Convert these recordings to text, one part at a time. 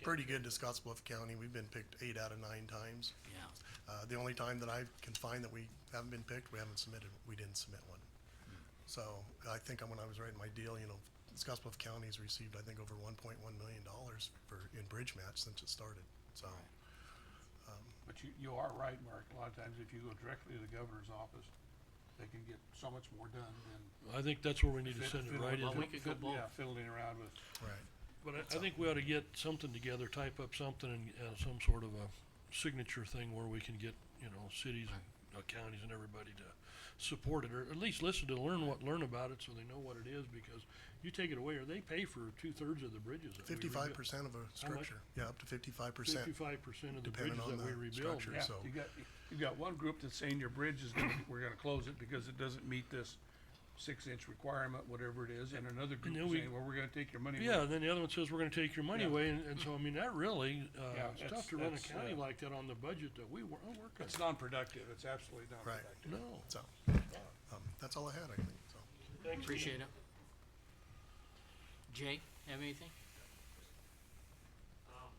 pretty good to Scotts Bluff County. We've been picked eight out of nine times. Yeah. Uh, the only time that I can find that we haven't been picked, we haven't submitted, we didn't submit one. So I think when I was writing my deal, you know, Scotts Bluff County's received, I think, over one point one million dollars for, in bridge match since it started, so. But you, you are right, Mark. A lot of times if you go directly to the governor's office, they can get so much more done than. I think that's where we need to fid- send it fiddling- right in. Well, we could go fid- Yeah, both. fiddling around with, Right. But I, I think we ought to get something together, type up something and, uh some sort of a signature thing where we can get, you know, cities and uh, counties and everybody to support it, or at least listen to, learn what, learn about it so they know what it is, because you take it away, or they pay for two-thirds of the bridges that we rebuild. Fifty-five percent of a structure, yeah, up to fifty-five percent. Fifty-five percent of the depending bridges on that we the rebuild. structure. yeah, so- you got, you got one group that's saying your bridge is gonna, we're gonna close it because it doesn't meet this six inch requirement, whatever it is, and another group then is we- saying, well, we're gonna take your money. away." Yeah, and then the other one says, we're gonna take your money Yeah. away, and, and so, I mean, that really, Yeah, uh, it's that's- tough to run a that's, county uh, like that on the budget that we wor- I work on. It's non-productive. It's absolutely Right. non-productive. No, So, um, that's all I had, I think, so. thanks. Appreciate it. Jay, have anything? Um,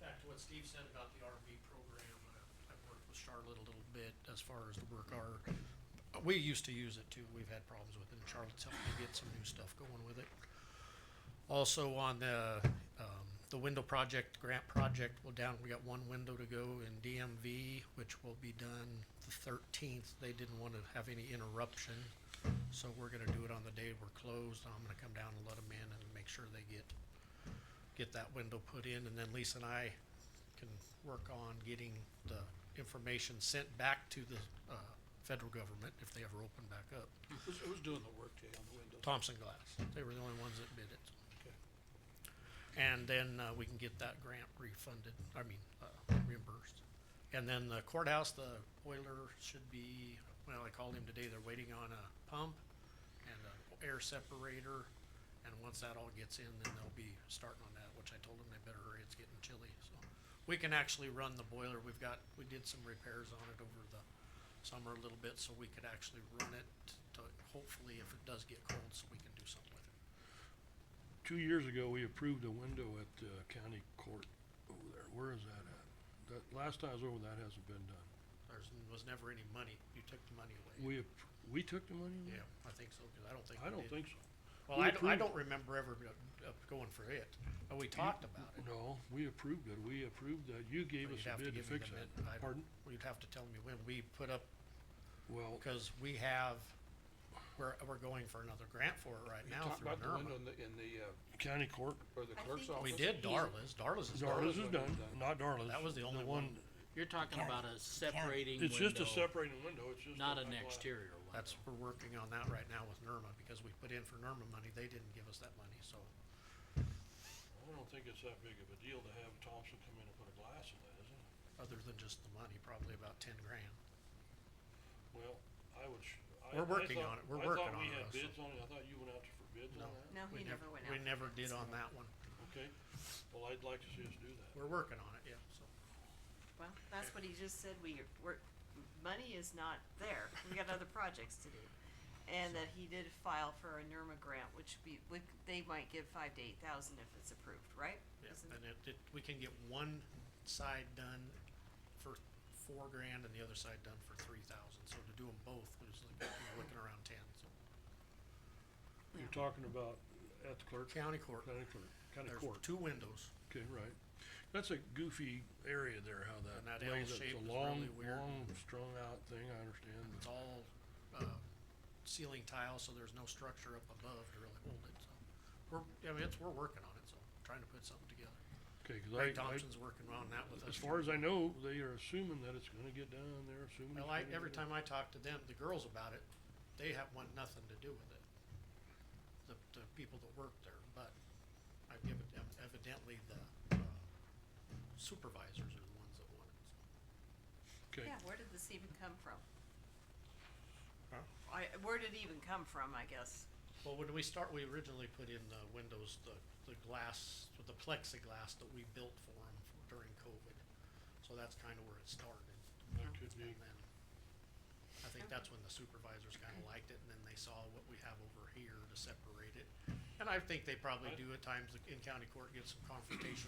Back to what Steve said about the RV program, I- I've worked with Charlotte a little bit as far as the work our, we used to use it too, we've had problems with it, and Charlotte's helping me get some new stuff going with it. Also on the, um, the window project, grant project, we're down, we got one window to go in DMV, which will be done the thirteenth, they didn't wanna have any interruption. So we're gonna do it on the day we're closed, I'm gonna come down and let them in and make sure they get get that window put in, and then Lisa and I can work on getting the information sent back to the, uh, federal government if they ever open back up. Who's, who's doing the work today on the windows? Thompson Glass, they were the only ones that bid it. And then, uh, we can get that grant refunded, I mean, uh, reimbursed. And then the courthouse, the boiler should be, well, I called him today, they're waiting on a pump and an air separator. And once that all gets in, then they'll be starting on that, which I told them they better hurry, it's getting chilly, so. We can actually run the boiler, we've got, we did some repairs on it over the summer a little bit, so we could actually run it to, hopefully, if it does get cold, so we can do something with it. Two years ago, we approved a window at uh, county court over there. Where is that at? That, last time I was over, that hasn't been done. There's, was never any money, you took the money away. We, appr- we took the money? away? Yeah, I think so, cause I don't think. I we don't did. think so. Well, we I, don't- approved I it. don't remember ever go- uh, going for it, but we talked about it. No, we approved it. We approved that. You gave But us you'd have a bid to give me the fix bid. that. I- Pardon? Well, you'd have to tell me when, we put up, Well, cause we have, we're, we're going for another grant for it right You now talked about through the window NERMA. in the, in the, uh, county court, or the I clerk's think it's- office. We did Darla's, Darla's is done, Darla's is window's done, done. not Darla's. that was the only one, You're talking about a separating It's just a window, separating window. It's just. not a- an a- exterior window. that's, we're working on that right now with NERMA, because we put in for NERMA money, they didn't give us that money, so. I don't think it's that big of a deal to have Thompson come in and put a glass in that, is it? other than just the money, probably about ten grand. Well, I would. sh- I- We're I working thought- on it. We're working I on thought we it had also. bids on it. I thought you went out for bids on No. that. No, We he nev- never went We out. never did on that one. Okay, well, I'd like to see us do that. We're working on it, yeah, so. Well, that's what he just said, we, we're, money is not there, we got other projects to do. And that he did file for a NERMA grant, which be, would, they might give five to eight thousand if it's approved, right? Yeah, Isn't and it- it, it, we can get one side done for four grand and the other side done for three thousand, so to do them both, was like, you know, looking around ten, so. You're talking about at the clerk, County court, county clerk, county there's court, two windows, okay, right. That's a goofy area there, how that. And that plays. L It's a shape is long, really weird. Long strung out thing, I understand. it's but- all, uh, ceiling tile, so there's no structure up above to really hold it, so. We're, I mean, it's, we're working on it, so, trying to put something together. Okay, 'cause I, I, Ray Thompson's working on that with us. as far as I know, they are assuming that it's gonna get done, they're assuming. Well, it's I, gonna every get time I talk to them, the girls about it, they have, want nothing to do with it. The, the people that work there, but I give it, evidently the uh, supervisors are the ones that want it, so. done. Okay, Yeah, where did this even come from? I, where did it even come from, I guess? Well, when we start, we originally put in the windows, the, the glass, with the plexiglass that we built for them during COVID. So that's kinda where it started. that could be, And then, I think that's when the supervisors kinda liked it, and then they saw what we have over here to separate it. And I think they probably do at times, in county court, get some confrontation